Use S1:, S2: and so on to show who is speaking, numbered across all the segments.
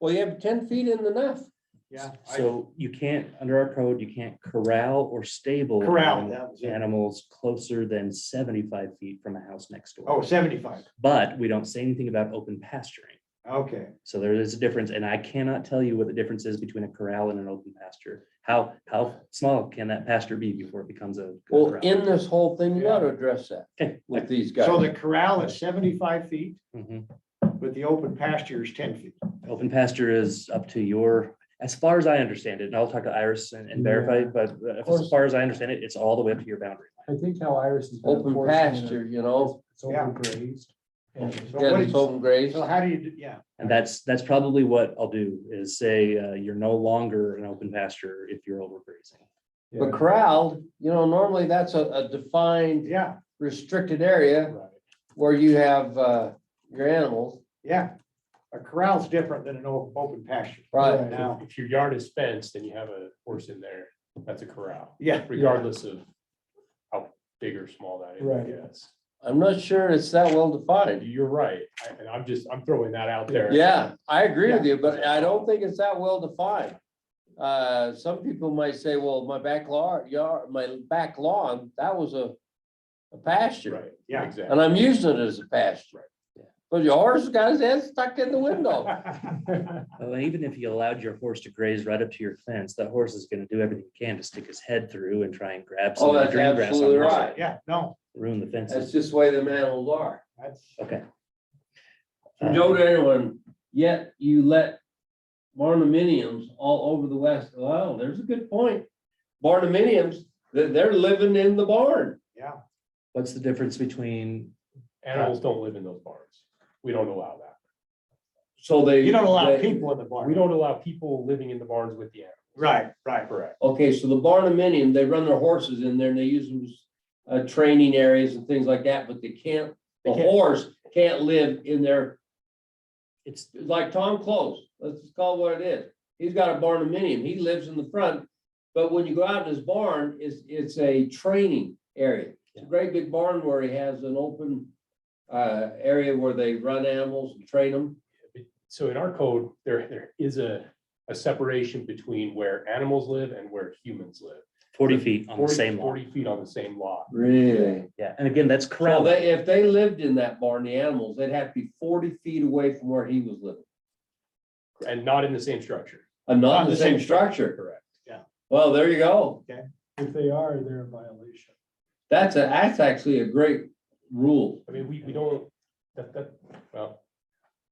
S1: Well, you have ten feet in enough.
S2: Yeah. I-
S3: So you can't, under our code, you can't corral or stable.
S2: Corral,
S3: an-
S2: that was it.
S3: Animals closer than seventy-five feet from a house next door.
S2: Oh, 75.
S3: But we don't say anything about open pasturing.
S2: Okay.
S3: So there is a difference and I cannot tell you what the difference is between a corral and an open pasture. How, how small can that pasture be before it becomes a?
S1: Well,
S3: corral?
S1: in this whole thing, you
S2: Yeah.
S1: gotta address that
S3: Okay.
S1: with these guys.
S2: So the corral is seventy-five feet,
S3: Mhm.
S2: but the open pasture is ten feet.
S3: Open pasture is up to your, as far as I understand it, and I'll talk to Iris and and verify, but uh, as
S4: course.
S3: far as I understand it, it's all the way up to your boundary.
S4: I think how Iris is.
S1: Open pasture, you know,
S4: It's overgrazed. and
S2: So
S1: yeah,
S2: what
S1: it's
S2: is-
S1: open graze.
S2: So how do you, do- yeah,
S3: And that's, that's probably what I'll do is say, uh, you're no longer an open pasture if you're overgrazing.
S1: But corralled, you know, normally that's a, a defined
S2: yeah,
S1: restricted area
S2: right,
S1: where you have, uh, your animals.
S2: yeah. A corral's different than an o- open pasture.
S1: Right.
S2: Now,
S5: If your yard is fenced and you have a horse in there, that's a corral,
S2: yeah,
S5: regardless of how big or small that is,
S4: Right.
S5: I guess.
S1: I'm not sure it's that well defined.
S5: You're right, I- and I'm just, I'm throwing that out there.
S1: Yeah, I agree with you, but I don't think it's that well defined. Uh, some people might say, well, my back lawn, yard, my back lawn, that was a a pasture.
S5: Right,
S2: yeah.
S5: exactly.
S1: And I'm using it as a pasture. But your horse has got his head stuck in the window.
S3: Well, even if you allowed your horse to graze right up to your fence, that horse is gonna do everything he can to stick his head through and try and grab
S1: Oh,
S3: some of the
S1: that's
S3: green grass. on
S1: absolutely
S3: the other
S1: right.
S2: Yeah, no,
S3: side, Ruin the
S1: That's
S3: fences.
S1: just the way the animals are.
S2: that's,
S3: Okay.
S1: Joe to anyone, yet you let barnuminiums all over the west. Well, there's a good point. Barnuminiums, they're, they're living in the barn.
S2: yeah,
S3: What's the difference between,
S5: Animals don't live in those barns. We don't allow that.
S1: So they.
S2: you don't allow
S1: they-
S2: people in the barn.
S5: We don't allow people living in the barns with the animals.
S2: Right, right,
S5: Correct.
S1: Okay, so the barnuminium, they run their horses in there and they use them as uh, training areas and things like that, but they can't, the
S2: They can't-
S1: horse can't live in their,
S3: it's,
S1: like Tom Close, let's just call it what it is. He's got a barnuminium, he lives in the front, but when you go out in his barn, it's, it's a training area. It's a great big barn where he has an open uh, area where they run animals and train them.
S5: So in our code, there, there is a, a separation between where animals live and where humans live.
S3: forty feet on the
S5: 40
S3: same lawn.
S5: Forty feet on the same lot.
S1: Really?
S3: Yeah, and again, that's
S1: So
S3: corral.
S1: they, if they lived in that barn, the animals, they'd have to be forty feet away from where he was living.
S5: And not in the same structure.
S1: I'm not in the same structure.
S5: Correct.
S1: Well, there you go.
S4: If they are, they're in violation.
S1: That's a, that's actually a great rule.
S5: I mean, we, we don't, that, that, well,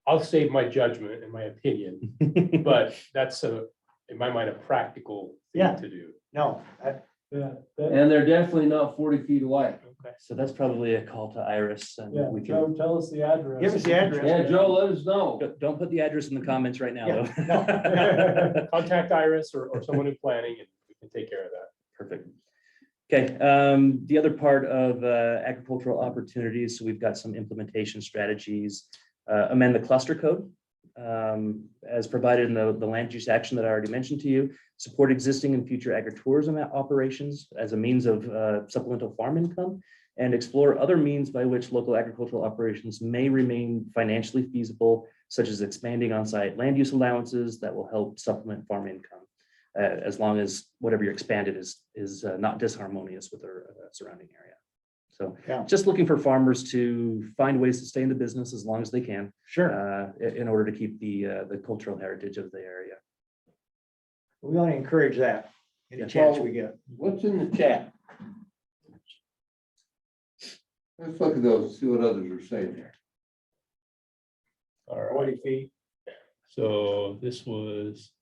S5: I'll save my judgment and my opinion, but that's a, in my mind, a practical
S2: Yeah.
S5: thing to do.
S2: no, that-
S4: Yeah, that,
S1: And they're definitely not forty feet away.
S3: So that's probably a call to Iris
S4: yeah,
S3: and we can,
S4: Joe, tell us the address.
S2: give us the
S1: Yeah,
S2: address.
S1: Joe, let us know.
S3: don't- don't put the address in the comments right now.
S2: Yeah,
S3: though.
S5: Contact Iris or, or someone in planning and we can take care of that.
S3: Perfect. Okay, um, the other part of uh, agricultural opportunities, so we've got some implementation strategies. Uh, amend the cluster code um, as provided in the, the land use action that I already mentioned to you. Support existing and future agritourism o- operations as a means of uh, supplemental farm income. And explore other means by which local agricultural operations may remain financially feasible, such as expanding on-site land use allowances that will help supplement farm income uh, as long as whatever you're expanded is, is uh, not disharmonious with our uh, surrounding area. So
S2: Yeah.
S3: just looking for farmers to find ways to stay in the business as long as they can,
S2: Sure.
S3: uh, i- in order to keep the, uh, the cultural heritage of the area.
S2: We only encourage that any
S3: Yeah.
S2: chance we get.
S1: What's in the chat? Let's look at those, see what others are saying there.
S5: All
S2: Forty feet.
S5: so this was.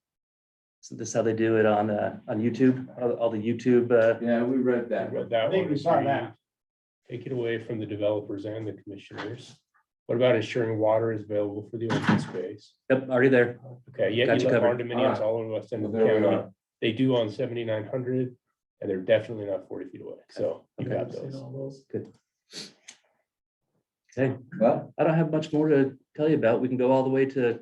S3: So this is how they do it on, uh, on YouTube, all all the YouTube, uh,
S1: Yeah, we read
S2: I think we saw that.
S5: Take it away from the developers and the commissioners. What about ensuring water is available for the open space?
S3: yep, already there.
S5: Okay, yeah,
S3: Got
S5: you
S3: you
S5: let
S3: covered.
S5: condominiums all over West End of the county. They do on seventy-nine hundred, and they're definitely not forty feet away, so you
S3: Okay.
S5: got
S4: I've seen
S5: those.
S4: all those.
S3: Okay,
S1: Well,
S3: I don't have much more to tell you about. We can go all the way to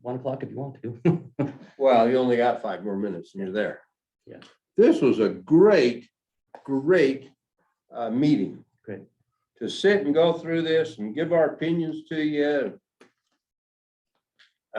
S3: one o'clock if you want to.
S1: well, you only got five more minutes and you're there.
S3: Yeah.
S1: This was a great, great, uh, meeting.
S3: Great.
S1: To sit and go through this and give our opinions to you.